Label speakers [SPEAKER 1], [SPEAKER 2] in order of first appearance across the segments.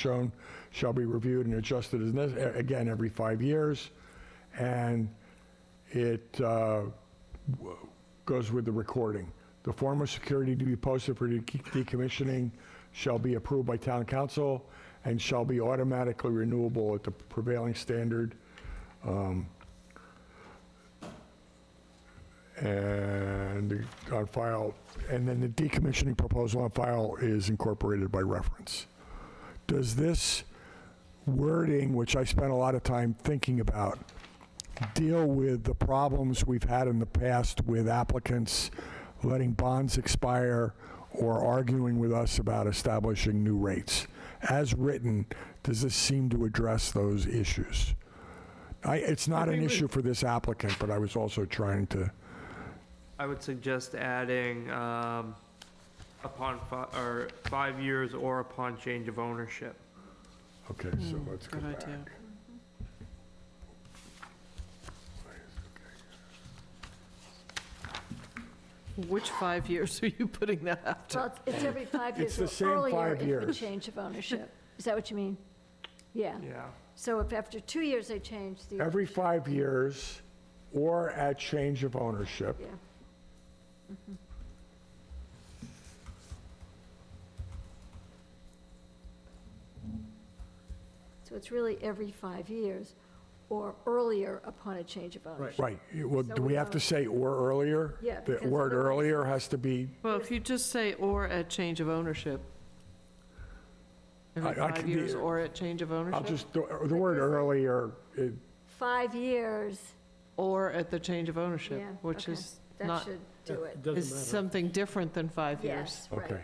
[SPEAKER 1] shown shall be reviewed and adjusted as, nec- again, every five years. And it uh, w- goes with the recording. The form of security to be posted for de- decommissioning shall be approved by town council and shall be automatically renewable at the prevailing standard. Um, And on file, and then the decommissioning proposal on file is incorporated by reference does this wording, which I spent a lot of time thinking about, deal with the problems we've had in the past with applicants letting bonds expire or arguing with us about establishing new rates? As written, does this seem to address those issues? I, it's not an issue for this applicant, but I was also trying to,
[SPEAKER 2] I would suggest adding, um, upon fi- or five years or upon change of ownership.
[SPEAKER 1] okay, so let's go
[SPEAKER 3] Hmm, Good
[SPEAKER 1] back.
[SPEAKER 3] idea. Which five years are you putting that
[SPEAKER 4] Well,
[SPEAKER 3] after?
[SPEAKER 4] it's- it's every five
[SPEAKER 1] It's
[SPEAKER 4] years
[SPEAKER 1] the same
[SPEAKER 4] or earlier
[SPEAKER 1] five
[SPEAKER 4] if the
[SPEAKER 1] years.
[SPEAKER 4] change of ownership. Is that what you mean? Yeah.
[SPEAKER 2] Yeah.
[SPEAKER 4] So if after two years they change the.
[SPEAKER 1] Every five years or at change of ownership.
[SPEAKER 4] Yeah. Mm-hmm. So it's really every five years or earlier upon a change of ownership.
[SPEAKER 1] Right, well, do
[SPEAKER 4] So
[SPEAKER 1] we
[SPEAKER 4] we
[SPEAKER 1] have to
[SPEAKER 4] don't-
[SPEAKER 1] say "or" earlier?
[SPEAKER 4] Yeah,
[SPEAKER 1] The
[SPEAKER 4] because
[SPEAKER 1] word
[SPEAKER 4] otherwise-
[SPEAKER 1] earlier has to be,
[SPEAKER 3] Well, if you just say, or at change of ownership. Every
[SPEAKER 1] I- I
[SPEAKER 3] five
[SPEAKER 1] can be-
[SPEAKER 3] years, or at change of
[SPEAKER 1] I'll
[SPEAKER 3] ownership?
[SPEAKER 1] just, the the word earlier, it-
[SPEAKER 4] Five years,
[SPEAKER 3] Or at the change of ownership,
[SPEAKER 4] Yeah,
[SPEAKER 3] which
[SPEAKER 4] okay.
[SPEAKER 3] is
[SPEAKER 4] that
[SPEAKER 3] not,
[SPEAKER 4] should do it.
[SPEAKER 3] is something different than five years.
[SPEAKER 4] Yes, right.
[SPEAKER 1] okay,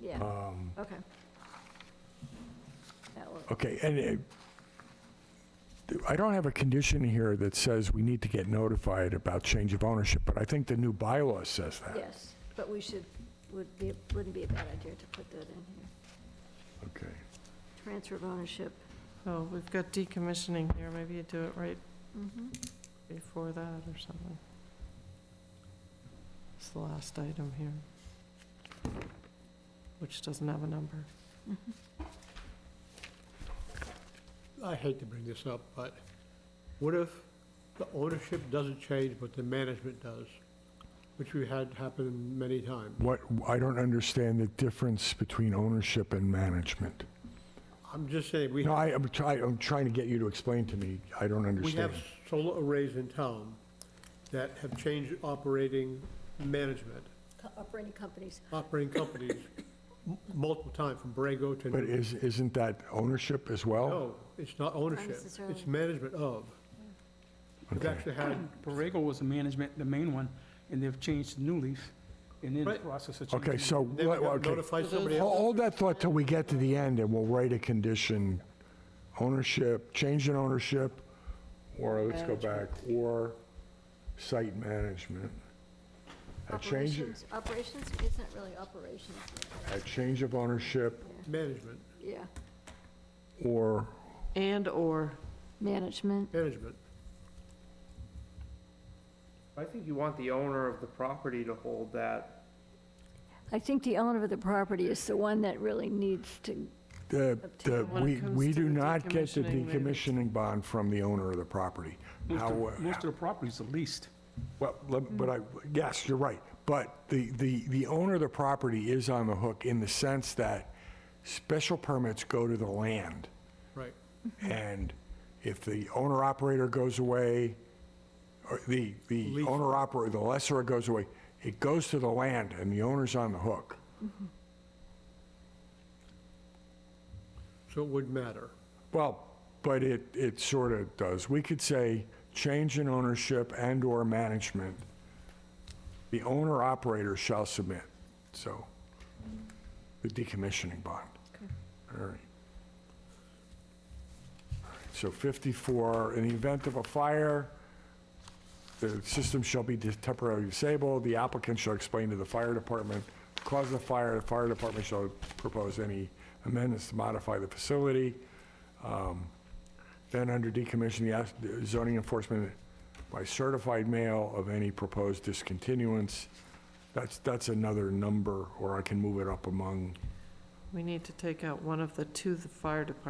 [SPEAKER 4] Yeah,
[SPEAKER 1] um,
[SPEAKER 4] okay. That will,
[SPEAKER 1] okay, and it- I don't have a condition here that says we need to get notified about change of ownership, but I think the new bylaw says that.
[SPEAKER 4] yes, but we should, would be, wouldn't be a bad idea to put that in here.
[SPEAKER 1] Okay,
[SPEAKER 4] Transfer of ownership.
[SPEAKER 3] Oh, we've got decommissioning here, maybe you do it right before that or something. It's the last item here, which doesn't have a number.
[SPEAKER 5] I hate to bring this up, but what if the ownership doesn't change, but the management does? Which we had happen many times.
[SPEAKER 1] what, I don't understand the difference between ownership and management.
[SPEAKER 5] I'm just saying, we,
[SPEAKER 1] No, I, I'm trying, I'm trying to get you to explain to me, I don't
[SPEAKER 5] we
[SPEAKER 1] understand.
[SPEAKER 5] have solar arrays in town that have changed operating management,
[SPEAKER 4] Co- Operating companies.
[SPEAKER 5] operating companies m- multiple times, from Brago
[SPEAKER 1] But
[SPEAKER 5] to,
[SPEAKER 1] is, isn't that ownership as well?
[SPEAKER 5] no, it's not ownership,
[SPEAKER 4] necessarily.
[SPEAKER 5] it's management of. We've
[SPEAKER 1] Okay.
[SPEAKER 5] actually had,
[SPEAKER 6] Borrego was the management, the main one, and they've changed to New Leaf, and in the
[SPEAKER 5] Right.
[SPEAKER 6] process of changing.
[SPEAKER 1] Okay, so,
[SPEAKER 5] they would
[SPEAKER 1] what- okay.
[SPEAKER 5] notify somebody
[SPEAKER 1] Hol-
[SPEAKER 5] else.
[SPEAKER 1] Hold that thought till we get to the end, and we'll write a condition, ownership, change in ownership, or let's go back, or site management. A change,
[SPEAKER 4] Operations, operations isn't really operations,
[SPEAKER 1] a change of ownership
[SPEAKER 5] Management,
[SPEAKER 4] yeah.
[SPEAKER 1] or
[SPEAKER 3] And/or
[SPEAKER 4] Management,
[SPEAKER 5] management.
[SPEAKER 2] I think you want the owner of the property to hold that.
[SPEAKER 4] I think the owner of the property is the one that really needs to,
[SPEAKER 1] the, the,
[SPEAKER 3] When it
[SPEAKER 1] we,
[SPEAKER 3] comes
[SPEAKER 1] we
[SPEAKER 3] to
[SPEAKER 1] do
[SPEAKER 3] the
[SPEAKER 1] not get the
[SPEAKER 3] decommissioning, maybe.
[SPEAKER 1] decommissioning bond from the owner of the property.
[SPEAKER 6] Most
[SPEAKER 1] How- uh,
[SPEAKER 6] of- Most of the properties are leased.
[SPEAKER 1] Well, let- but I, yes, you're right. But the, the, the owner of the property is on the hook in the sense that special permits go to the land.
[SPEAKER 5] Right.
[SPEAKER 1] And if the owner-operator goes away, or the, the owner-operator, the lessor goes away, it goes to the land and the owner's on the hook.
[SPEAKER 5] So it would matter.
[SPEAKER 1] Well, but it, it sort of does. We could say change in ownership and/or management. The owner-operator shall submit, so, the decommissioning bond. All right. So 54, in the event of a fire, the system shall be dis- temporarily disabled. The applicant shall explain to the fire department the cause of the fire. The fire department shall propose any amendments to modify the facility. Um, Then under decommission, the as- the zoning enforcement by certified mail of any proposed discontinuance. That's, that's another number, or I can move it up among
[SPEAKER 3] we need to take out one of the to the fire department.